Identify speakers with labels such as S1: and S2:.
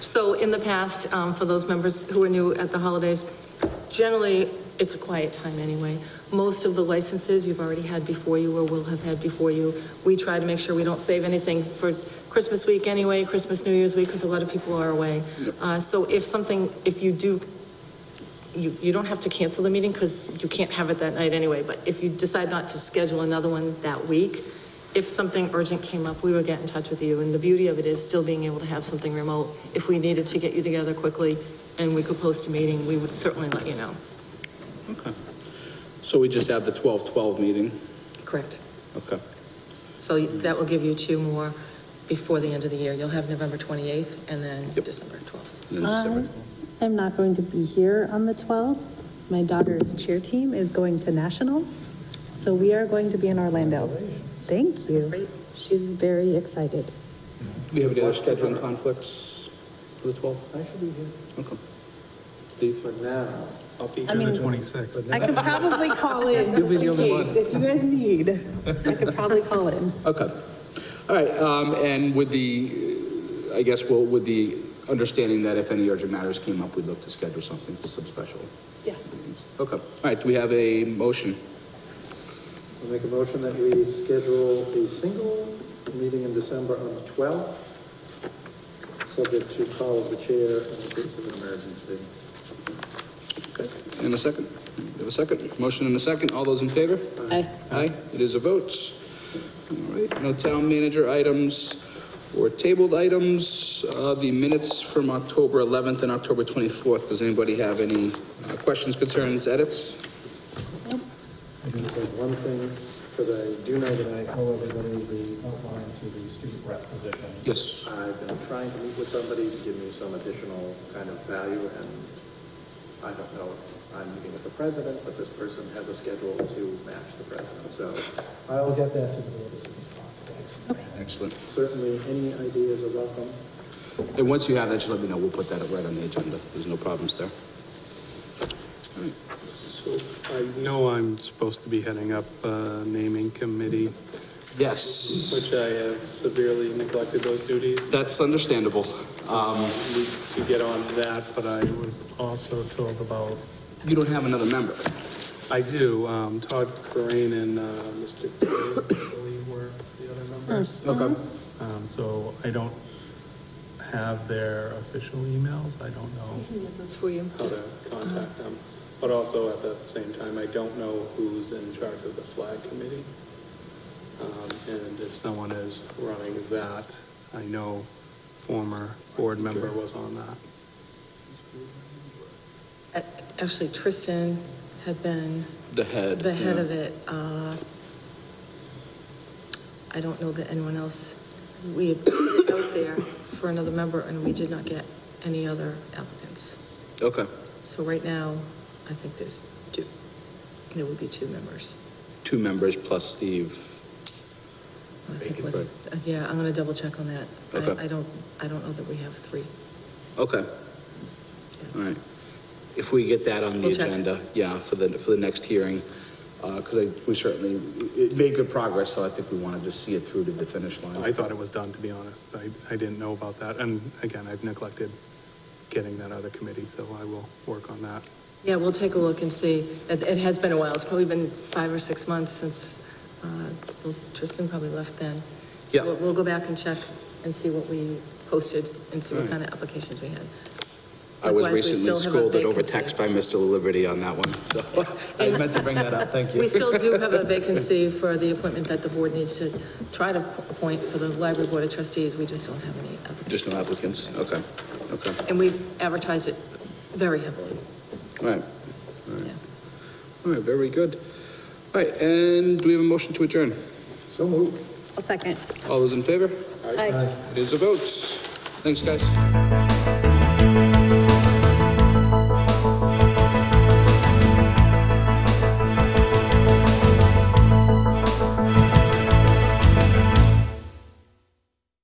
S1: So in the past, um, for those members who are new at the holidays, generally, it's a quiet time anyway. Most of the licenses you've already had before you or will have had before you. We try to make sure we don't save anything for Christmas week anyway, Christmas, New Year's week, because a lot of people are away. Uh, so if something, if you do you, you don't have to cancel the meeting because you can't have it that night anyway, but if you decide not to schedule another one that week, if something urgent came up, we would get in touch with you. And the beauty of it is still being able to have something remote. If we needed to get you together quickly and we could post a meeting, we would certainly let you know.
S2: Okay. So we just have the 12-12 meeting?
S1: Correct.
S2: Okay.
S1: So that will give you two more before the end of the year. You'll have November 28th and then
S2: Yep.
S1: December 12th.
S2: And then
S3: I
S2: December-
S3: am not going to be here on the 12th. My daughter's cheer team is going to nationals, so we are going to be in Orlando. Thank you. She's very excited.
S2: Do you have any other scheduling conflicts for the 12th? I should be here. Okay. Steve? For now. I'll be here.
S3: I mean,
S4: Twenty-sixth.
S3: I could probably call in
S2: You'll be
S3: just
S2: the
S3: in
S2: only one.
S3: case, if you guys need. I could probably call in.
S2: Okay. All right, um, and with the, uh, I guess, well, with the understanding that if any urgent matters came up, we'd look to schedule something, some special.
S3: Yeah.
S2: Okay. All right, do we have a motion?
S4: I'll make a motion that we schedule a single meeting in December on the 12th, subject to call of the chair in the case of an emergency.
S2: In a second. We have a second. Motion in a second. All those in favor?
S3: Aye.
S2: Aye, it is a vote. All right, no town manager items or tabled items. Uh, The minutes from October 11th and October 24th, does anybody have any uh, questions, concerns, edits?
S4: I can say one thing, because I do know that I owe everybody the outline to the student rep position.
S2: Yes.
S4: I've been trying to meet with somebody to give me some additional kind of value, and I don't know if I'm meeting with the president, but this person has a schedule to match the president, so. I will get that to the board as soon as possible.
S2: Excellent.
S4: Certainly, any ideas are welcome.
S2: And once you have that, just let me know. We'll put that right on the agenda. There's no problems there.
S5: So I know I'm supposed to be heading up uh, naming committee,
S2: Yes,
S5: which I have severely neglected those duties.
S2: that's understandable.
S5: Need to get on to that, but I was also told about,
S2: You don't have another member.
S5: I do, um, Todd Corain and uh, Mr. Gray, I believe were the other members.
S2: Hmm. Okay.
S5: Um, So I don't have their official emails. I don't know.
S1: That's for you.
S5: how to contact them. But also at the same time, I don't know who's in charge of the flag committee. Um, and if someone is running that, I know former board member was on that.
S1: Uh, Actually, Tristan had been
S2: The head.
S1: the head
S2: yeah.
S1: of it, uh, I don't know that anyone else, we had put it out there for another member, and we did not get any other applicants.
S2: Okay,
S1: So right now, I think there's two, there would be two members.
S2: two members plus Steve.
S1: I think
S2: Vacant,
S1: was-
S2: right.
S1: uh, Yeah, I'm gonna double check on that. I-
S2: Okay.
S1: I don't, I don't know that we have three.
S2: Okay. All right. If we get that on the
S1: We'll check.
S2: agenda, yeah, for the, for the next hearing, because I, we certainly, it made good progress, so I think we wanted to see it through to the finish line.
S5: I thought it was done, to be honest. I, I didn't know about that. And again, I've neglected getting that other committee, so I will work on that.
S1: Yeah, we'll take a look and see. It, it has been a while. It's probably been five or six months since, uh, well, Tristan probably left then.
S2: Yeah.
S1: So we'll- we'll go back and check and see what we posted and see what
S2: Right.
S1: kind of applications we had.
S2: I was
S1: Likewise, we
S2: recently
S1: still have a
S2: scolded over
S1: vacancy.
S2: text by Mr. Liberty on that one, so I meant to bring that up, thank you.
S1: We still do have a vacancy for the appointment that the board needs to try to appoint for the library board of trustees. We just don't have any applicants.
S2: Just no applicants, okay, okay,
S1: And we've advertised it very heavily,
S2: all right,
S1: yeah.
S2: all right, very good. All right, and do we have a motion to adjourn?
S4: So moved.
S3: A second.
S2: All those in favor?
S3: Aye.
S2: It is a vote. Thanks, guys.